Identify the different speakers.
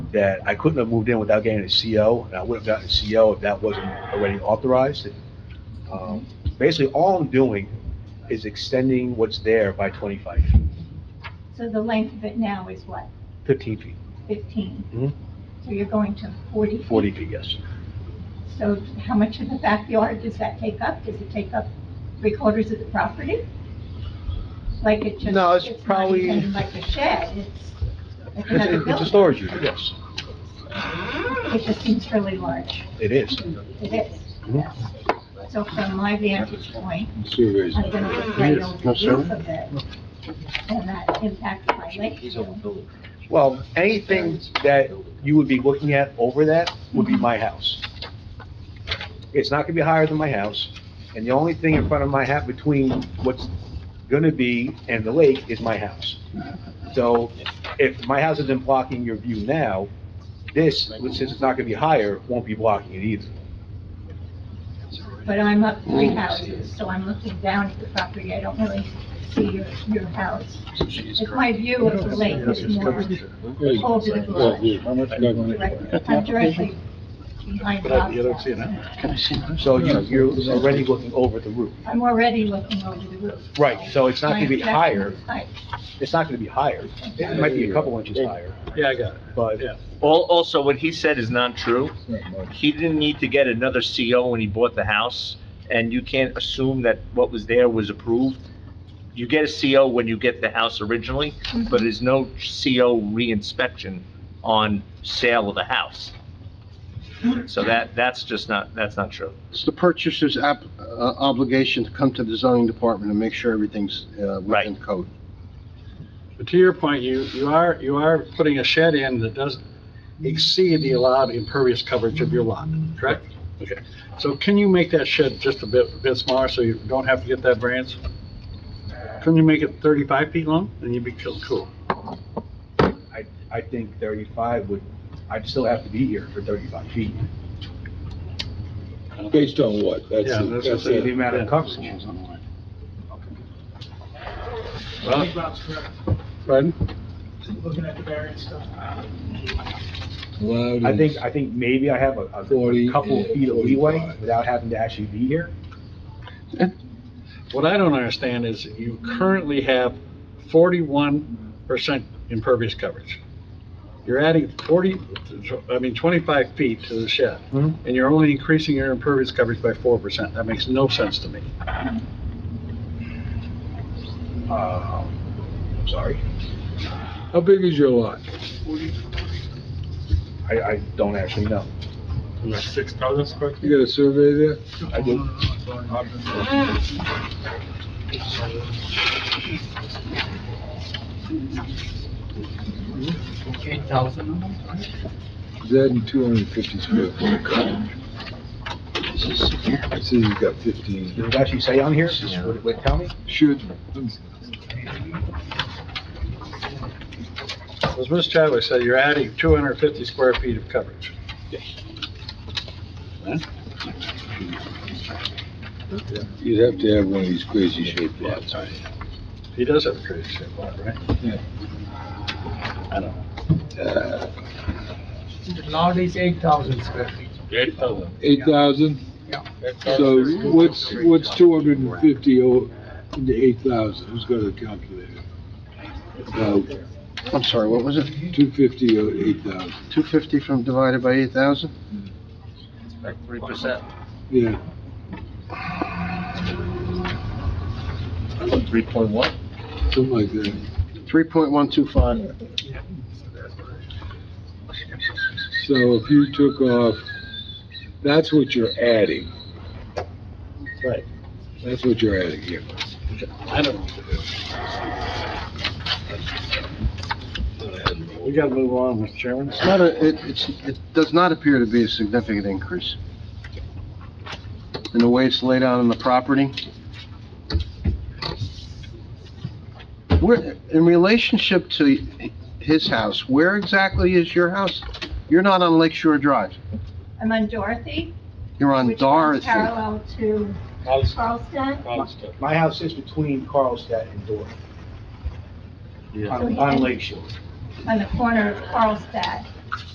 Speaker 1: that I couldn't have moved in without getting a CO, and I would have gotten a CO if that wasn't already authorized. Um, Basically, all I'm doing is extending what's there by 25 feet,
Speaker 2: So the length of it now is what,
Speaker 1: 15 feet,
Speaker 2: 15?
Speaker 1: Mhm.
Speaker 2: So you're going to 40?
Speaker 1: 40 feet, yes.
Speaker 2: So how much of the backyard does that take up? Does it take up three quarters of the property? Like it just...
Speaker 1: No, it's probably-
Speaker 2: not even like a shed, it's like
Speaker 1: It's
Speaker 2: another
Speaker 1: a- it's a
Speaker 2: building.
Speaker 1: storage unit, yes,
Speaker 2: It just seems really large.
Speaker 1: it is.
Speaker 2: It is.
Speaker 1: Mhm.
Speaker 2: So from my vantage point,
Speaker 3: Surveys.
Speaker 2: I'm going to look right over the roof of it, and that impacts my lake. view.
Speaker 1: Well, anything that you would be looking at over that would be my house. It's not gonna be higher than my house, and the only thing in front of my house, between what's gonna be and the lake is my house. So if my house isn't blocking your view now, this, since it's not gonna be higher, won't be blocking it either.
Speaker 2: But I'm up three
Speaker 3: Mm.
Speaker 2: houses, so I'm looking down at the property, I don't really see your, your house. It's my view of the lake is more over the garage, right? I'm directly behind the house.
Speaker 1: So you, you're already looking over the roof.
Speaker 2: I'm already looking over the roof.
Speaker 1: Right, so it's not gonna be
Speaker 2: My
Speaker 1: higher,
Speaker 2: perception is high.
Speaker 1: it's not gonna be higher, it might be a couple inches higher,
Speaker 4: Yeah, I got it.
Speaker 1: but
Speaker 5: Al- Also, what he said is not true. He didn't need to get another CO when he bought the house, and you can't assume that what was there was approved. You get a CO when you get the house originally, but
Speaker 2: Mm-hmm.
Speaker 5: there's no CO reinspection on sale of the house. So that, that's just not, that's not true.
Speaker 3: It's the purchaser's app, uh, obligation to come to the zoning department and make sure everything's, uh, within
Speaker 5: Right.
Speaker 3: code.
Speaker 4: But to your point, you, you are, you are putting a shed in that doesn't exceed the allowed impervious coverage of your lot, correct? Okay, so can you make that shed just a bit, bit smaller so you don't have to get that variance? Couldn't you make it thirty-five feet long, and you'd be cool, cool?
Speaker 1: I, I think thirty-five would, I'd still have to be here for thirty-five feet,
Speaker 6: Based on what? That's,
Speaker 4: Yeah, that's what
Speaker 6: that's
Speaker 1: the
Speaker 4: I'm
Speaker 6: it.
Speaker 4: saying.
Speaker 1: amount of coverage.
Speaker 7: I think Rob's correct,
Speaker 4: Pardon?
Speaker 7: looking at the variance stuff.
Speaker 6: Allowed
Speaker 1: I
Speaker 6: is-
Speaker 1: think, I think maybe I have a, a
Speaker 6: 40
Speaker 1: couple
Speaker 6: and
Speaker 1: feet of leeway
Speaker 6: 45.
Speaker 1: without having to actually be here.
Speaker 4: What I don't understand is you currently have forty-one percent impervious coverage. You're adding forty, I mean, twenty-five feet to the shed,
Speaker 1: Mhm.
Speaker 4: and you're only increasing your impervious coverage by four percent. That makes no sense to me.
Speaker 1: Uh, I'm sorry,
Speaker 6: How big is your lot?
Speaker 1: I, I don't actually know.
Speaker 7: Six thousand square
Speaker 6: You got a survey there?
Speaker 1: I do.
Speaker 7: Eight thousand?
Speaker 6: Is that in two hundred and fifty square foot coverage? It says you got fifteen.
Speaker 1: Did it actually say on here? Would it- would it tell me?
Speaker 6: Should,
Speaker 4: As Ms. Chadwick said, you're adding two hundred and fifty square feet of coverage.
Speaker 6: you'd have to have one of these crazy shaped lots.
Speaker 4: He does have a crazy shed lot, right?
Speaker 6: Uh,
Speaker 7: Lot is eight thousand square feet.
Speaker 6: Eight thousand?
Speaker 7: Yeah.
Speaker 6: So what's, what's two hundred and fifty into eight thousand? Who's got a calculator?
Speaker 3: I'm sorry, what was it?
Speaker 6: Two fifty or eight thousand?
Speaker 3: Two fifty from divided by eight thousand?
Speaker 5: Like three percent.
Speaker 6: Yeah,
Speaker 5: Three point one?
Speaker 6: something like that.
Speaker 3: Three point one two five.
Speaker 6: So if you took off, that's what you're adding.
Speaker 4: Right.
Speaker 6: That's what you're adding here.
Speaker 4: I don't know what to do. We gotta move on, Mr. Chairman.
Speaker 3: It's not a, it, it's, it does not appear to be a significant increase. And the way it's laid out on the property. Where, in relationship to his house, where exactly is your house? You're not on Lake Shore Drive.
Speaker 2: I'm on Dorothy,
Speaker 3: You're on
Speaker 2: which runs
Speaker 3: Dorothy.
Speaker 2: parallel to Carlstadt.
Speaker 1: My house is between Carlstadt and Dorothy. On, on Lake Shore.
Speaker 2: on the corner of Carlstadt